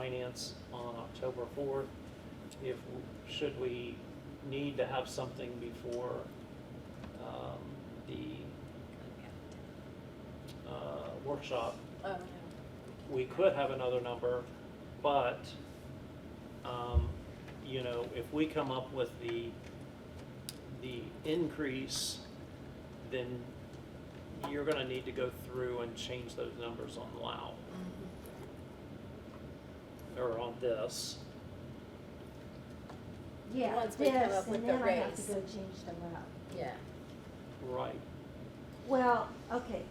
finance on October fourth. If, should we need to have something before, um, the, uh, workshop, Oh, no. we could have another number, but, um, you know, if we come up with the, the increase, then you're gonna need to go through and change those numbers on Lao. Or on this, Yeah, Once we come this, up with the And then I have raise. to go change them up. Yeah. right, Well, okay.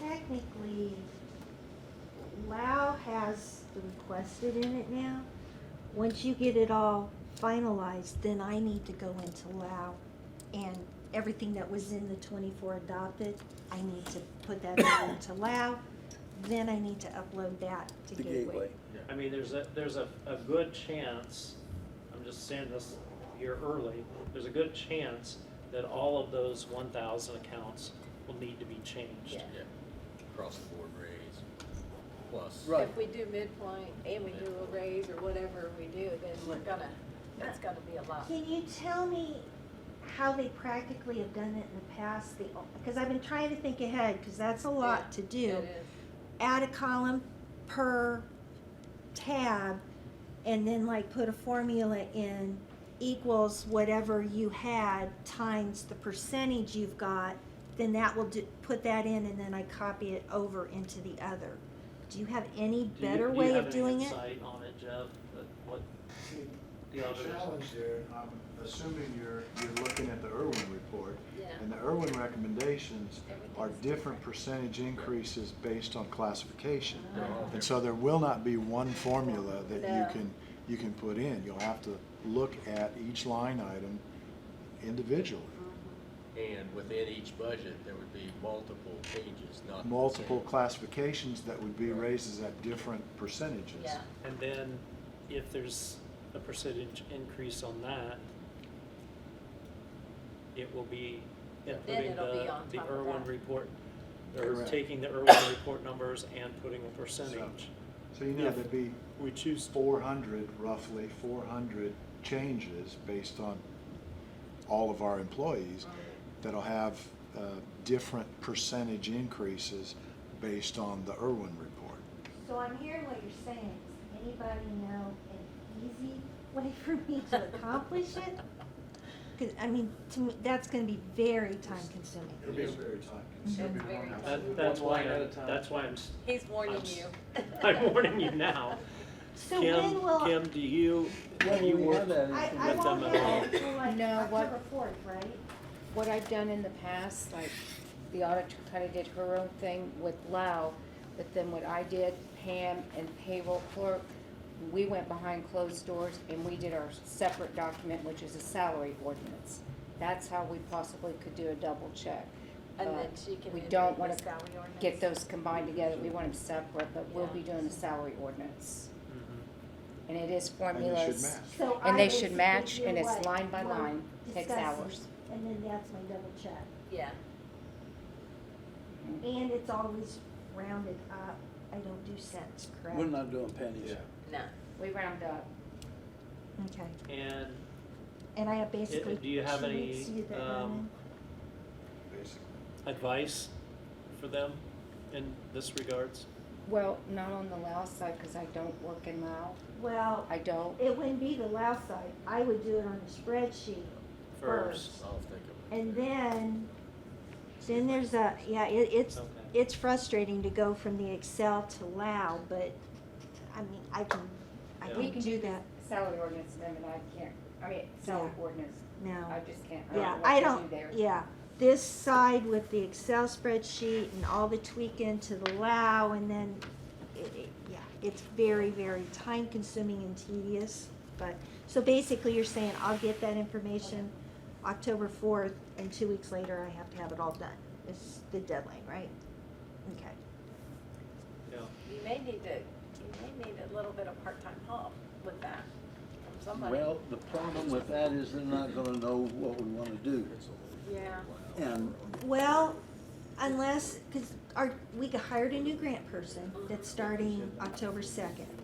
Technically, Lao has the requested in it now. Once you get it all finalized, then I need to go into Lao and everything that was in the twenty-four adopted, I need to put that over into Lao. Then I need to upload that to the gateway. Gateway. I mean, there's a, there's a, a good chance, I'm just saying this here early, there's a good chance that all of those one thousand accounts will need to be changed. Yeah. Yeah, across the board raise, plus. Right. If we do midpoint and we do a raise or whatever we do, then we're gonna, that's gonna be a lot. Can you tell me how they practically have done it in the past? The, because I've been trying to think ahead, because that's a Yeah, lot to do. It is. Add a column per tab, and then like put a formula in equals whatever you had times the percentage you've got, then that will do, put that in, and then I copy it over into the other. Do you have Do any you- better do you way have of any doing it? insight on it, Jeff, that what, The challenge there, I'm assuming you're, you're looking at the Irwin report, Yeah. and the Irwin recommendations are Everything's different percentage increases based on classification. They're all And so there will not be one formula that No. you can, you can put in. You'll have to look at each line item individually. And within each budget, there would be multiple changes, Mm-hmm. not. the Multiple same. classifications that would be Right. raises at different percentages. Yeah. and then if there's a percentage increase on that, it will be inputting it'll be the, on the top of Irwin that. report, or Correct. taking the Irwin report numbers and putting a percentage. So you know, Yeah. there'd be We choose to four hundred, roughly four hundred changes based on all of our employees that'll have uh, different percentage increases based on the Irwin report. So I'm hearing what you're saying. Does anybody know an easy way for me to accomplish it? Because, I mean, to me, that's going to be very time consuming. It'll be very time consuming. It's very time That, that's One why, line at a I'm- time. that's why I'm, s- He's warning I'm s- you. I'm warning you now. So Kim, when will Kim, do you, do you work? I, I get won't them have it involved. until like No, what- October fourth, right? what I've done in the past, like the auditor kind of did her own thing with Lau, but then what I did, Pam and payroll clerk, we went behind closed doors and we did our separate document, which is a salary ordinance. That's how we possibly could do a double check. And But then she can we amend don't the wanna salary ordinance. Get those combined together, we want them separate, but we'll be Yeah. doing a salary ordinance. Mhm. Mm-hmm. And it is And it should formulas, match. So I and they should basically match, do and it's what line by we're line, takes discussing, hours. And then that's my double check. Yeah. And it's always rounded up. I don't do cents, correct? We're not doing pennies. No. We round up. Okay. And And I have basically do you have two any, weeks to get that done um, in. basically. advice for them in this regards? Well, not on the Lao side, because I don't work in Lao. Well, I don't. it wouldn't be the left side. I would do it on the spreadsheet First. first. I'll think of it. And then, then there's a, yeah, it, it's, Okay. it's frustrating to go from the Excel to Lao, but, I mean, I can, I Yeah. We can can do do that Salary ordinance amendment, I can't, I mean, salary Yeah. ordinance, I now. just can't, Yeah, I I don't know don't, what to do there. yeah, this side with the Excel spreadsheet and all the tweaking to the Lao, and then, it, it, yeah, it's very, very time consuming and tedious, but, so basically you're saying, I'll get that information October fourth, and two weeks later, I have to have it all done, is the deadline, right? Okay. Yeah. You may need to, you may need a little bit of part-time help with that from somebody. Well, the problem with that is they're not gonna know what we wanna do. Yeah. And Well, unless, cause our, we hired a new grant person that's starting October second.